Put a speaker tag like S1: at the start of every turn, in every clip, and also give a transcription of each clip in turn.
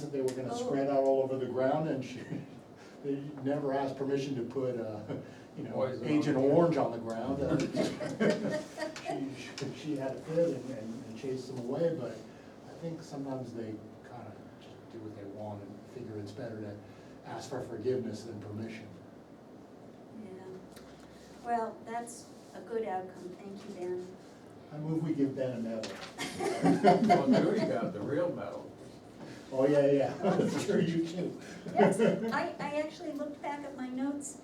S1: that they were gonna
S2: Oh.
S1: spread out all over the ground and she, they never asked permission to put, uh, you know,
S3: Poison on
S1: Agent
S3: it.
S1: Orange on the ground. Uh, She, she- she had a fit and, and and chased them away, but I think sometimes they kinda just do what they want and figure it's better to ask for forgiveness than permission.
S2: Yeah, well, that's a good outcome, thank you, Ben.
S1: I move we give Ben a medal.
S3: Well, Judy got the real medal.
S1: Oh, yeah, yeah, I'm sure you too.
S2: Yes, I, I actually looked back at my notes,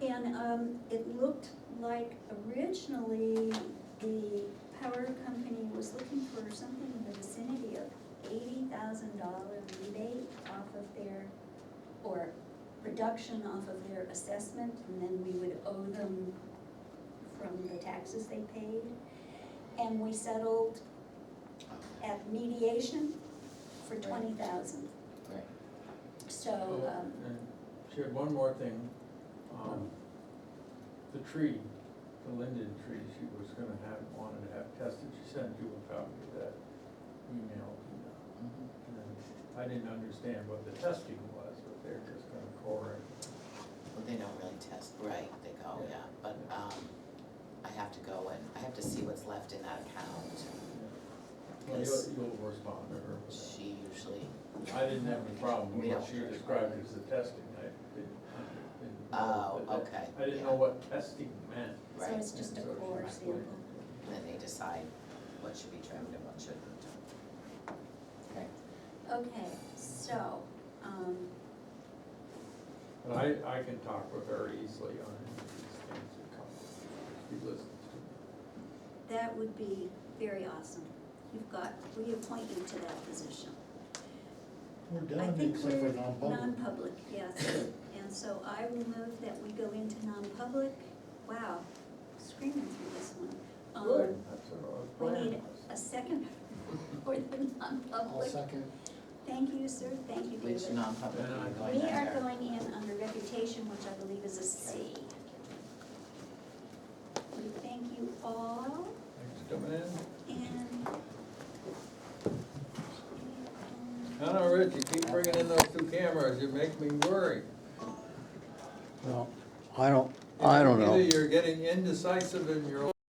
S2: and, um, it looked like originally the power company was looking for something in the vicinity of eighty thousand dollar rebate off of their, or reduction off of their assessment, and then we would owe them from the taxes they paid. And we settled at mediation for twenty thousand.
S4: Right.
S2: So, um,
S3: Oh, And She had one more thing, um, the tree, the linden tree, she was gonna have, wanted to have tested, she sent you a copy of that email.
S4: Mhm.
S3: And I didn't understand what the testing was, but they're just gonna core it.
S4: Well, they don't really test, right, they go,
S3: Yeah.
S4: yeah, but, um, I have to go and, I have to see what's left in that account.
S3: Well,
S4: Yes.
S3: you'll, you'll respond to her with
S4: She usually,
S3: that. I didn't have a problem with
S4: We
S3: what
S4: don't.
S3: she described as the testing, I didn't. didn't know
S4: Oh,
S3: that-
S4: okay,
S3: I didn't
S4: yeah.
S3: know what testing meant.
S2: so
S4: Right.
S2: it's just a
S3: And so she
S2: core
S3: explained
S2: sample.
S3: it.
S4: then they decide what should be trimmed and what shouldn't. Okay.
S2: Okay, so, um,
S3: And I, I can talk with her easily on any of these things that come, up. she listens to me.
S2: that would be very awesome. You've got, we appoint you to that position.
S1: We're
S2: I
S1: done,
S2: think
S1: except
S2: we're
S1: for non-public.
S2: Non-public, yes. And so I will move that we go into non-public. Wow, screaming through this one. Um,
S3: Good. That's what I was
S2: We
S3: planning
S2: need
S3: on.
S2: a second for the
S1: I'll
S2: non-public.
S1: second.
S2: Thank you, sir. Thank you,
S4: Which
S2: David.
S4: non-public
S3: Then
S4: are
S3: I-
S4: you going
S2: We
S4: under?
S2: are going in under reputation, which I believe is a C. We thank you all
S3: Thanks for coming in.
S2: and.
S3: I know, Rich, you keep bringing in those two cameras, you make me worry.
S5: Well, I don't, I don't know.
S3: Either you're getting indecisive in your